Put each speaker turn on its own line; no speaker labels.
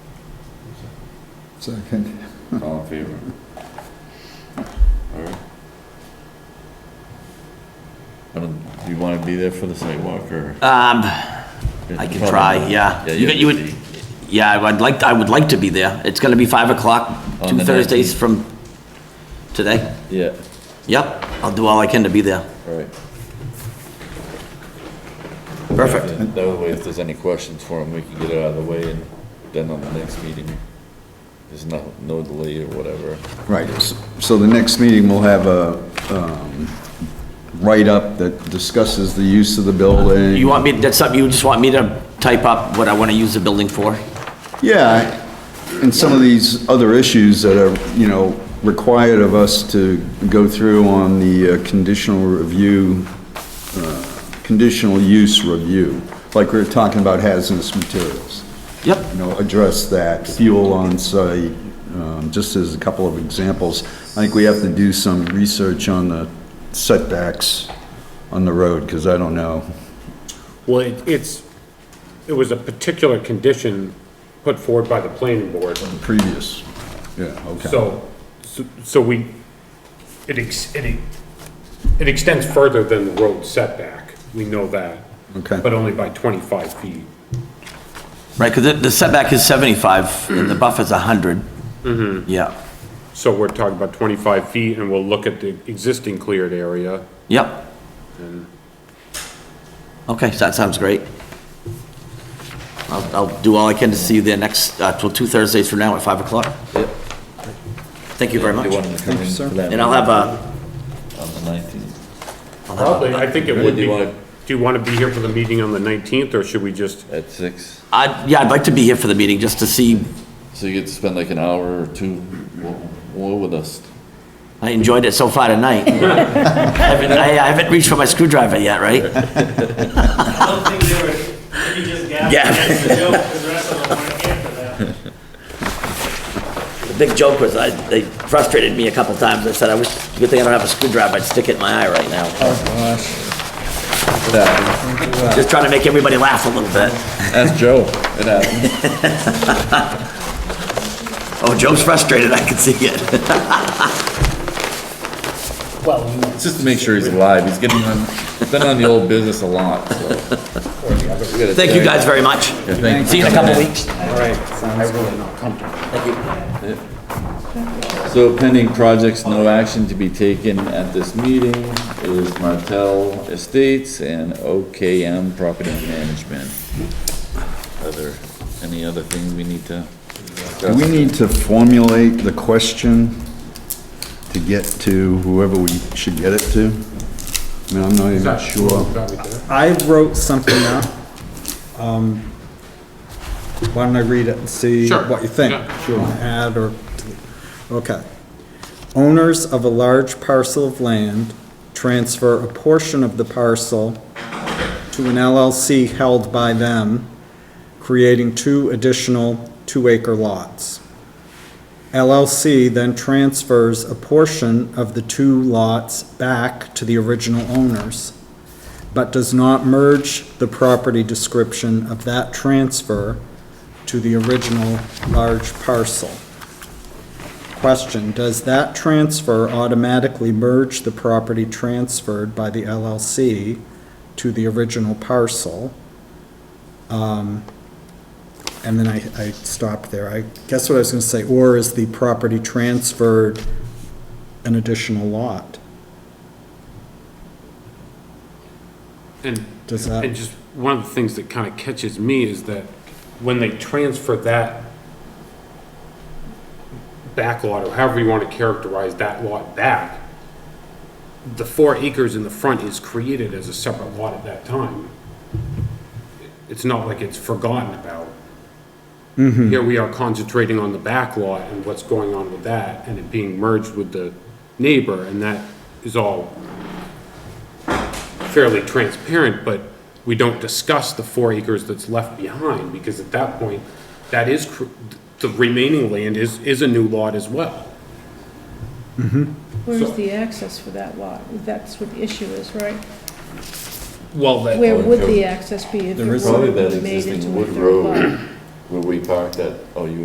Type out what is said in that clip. Second.
All in favor? All right. I don't, do you want to be there for the sidewalk or?
Um, I can try, yeah.
Yeah,
You got- you would-
busy.
Yeah, I would like, I would like to be there. It's gonna be five o'clock,
On
two
the
Thursdays
19th.
from today.
Yeah,
Yep, I'll do all I can to be there.
all right.
Perfect.
That way, if there's any questions for him, we can get it out of the way and then on the next meeting, there's no, no delay or whatever.
Right, s- so the next meeting will have a um, write-up that discusses the use of the building.
You want me, that's something, you just want me to type up what I wanna use the building for?
Yeah, and some of these other issues that are, you know, required of us to go through on the uh, conditional review, uh, conditional use review, like we were talking about hazardous materials,
Yep,
you know, address that, fuel on site, um, just as a couple of examples. I think we have to do some research on the setbacks on the road, because I don't know.
Well, it- it's, it was a particular condition put forward by the planning board,
Previous, yeah, okay.
so, so- so we, it ex, it, it extends further than the road setback, we know that.
Okay.
But only by twenty-five feet.
right, cause the- the setback is seventy-five and the buffer's a hundred. Mm-hmm. Yeah,
So we're talking about twenty-five feet, and we'll look at the existing cleared area.
yep. Okay, so that sounds great. I'll, I'll do all I can to see you there next, uh, till two Thursdays from now at five o'clock.
Yep.
Thank you very
Do you want
much.
him to come in for that?
And I'll have a,
On the nineteenth.
I'll have
Probably,
a,
I think it
Really, do
would be,
you wanna-
do you wanna be here for the meeting on the nineteenth, or should we just,
At six?
I'd, yeah, I'd like to be here for the meeting just to see,
So you get to spend like an hour or two w- w- with us.
I enjoyed it so far tonight. I haven't, I I haven't reached for my screwdriver yet, right?
don't think they were, maybe just gabbed
Yeah.
against the joke, because the rest of them weren't here for that.
The big joke was, I, they frustrated me a couple times. I said, I wish, good thing I don't have a screwdriver, I'd stick it in my eye right now. Just trying to make everybody laugh a little bit.
Ask Joe. It happened.
Oh, Joe's frustrated, I can see it.
It's just to make sure he's alive. He's getting on, been on the old business a lot, so.
Thank you guys very much. See you in a couple weeks.
So pending projects, no action to be taken at this meeting is Martel Estates and OKM Property Management. Are there any other things we need to?
Do we need to formulate the question to get to whoever we should get it to? I mean, I'm not even sure.
Probably there.
I wrote something up. Um, Why don't I read it and see
Sure,
what you think?
yeah.
Do you want to add or, okay. Owners of a large parcel of land transfer a portion of the parcel to an LLC held by them, creating two additional two-acre lots. LLC then transfers a portion of the two lots back to the original owners, but does not merge the property description of that transfer to the original large parcel. Question, does that transfer automatically merge the property transferred by the LLC to the original parcel? Um, And then I, I stopped there. I guess what I was gonna say, or is the property transferred an additional lot?
and
Does that?
And just, one of the things that kind of catches me is that when they transfer that back lot, or however you want to characterize that lot back, the four acres in the front is created as a separate lot at that time. It's not like it's forgotten about.
Mm-hmm.
Here we are concentrating on the back lot and what's going on with that, and it being merged with the neighbor, and that is all fairly transparent, but we don't discuss the four acres that's left behind, because at that point, that is, cr- the remaining land is, is a new lot as well.
Where's
So-
the access for that lot? That's what the issue is, right?
Well, that.
Where would the access be if it
There is-
were
Probably that
made into
existing
a
wood
third lot?
road where we parked that, oh, you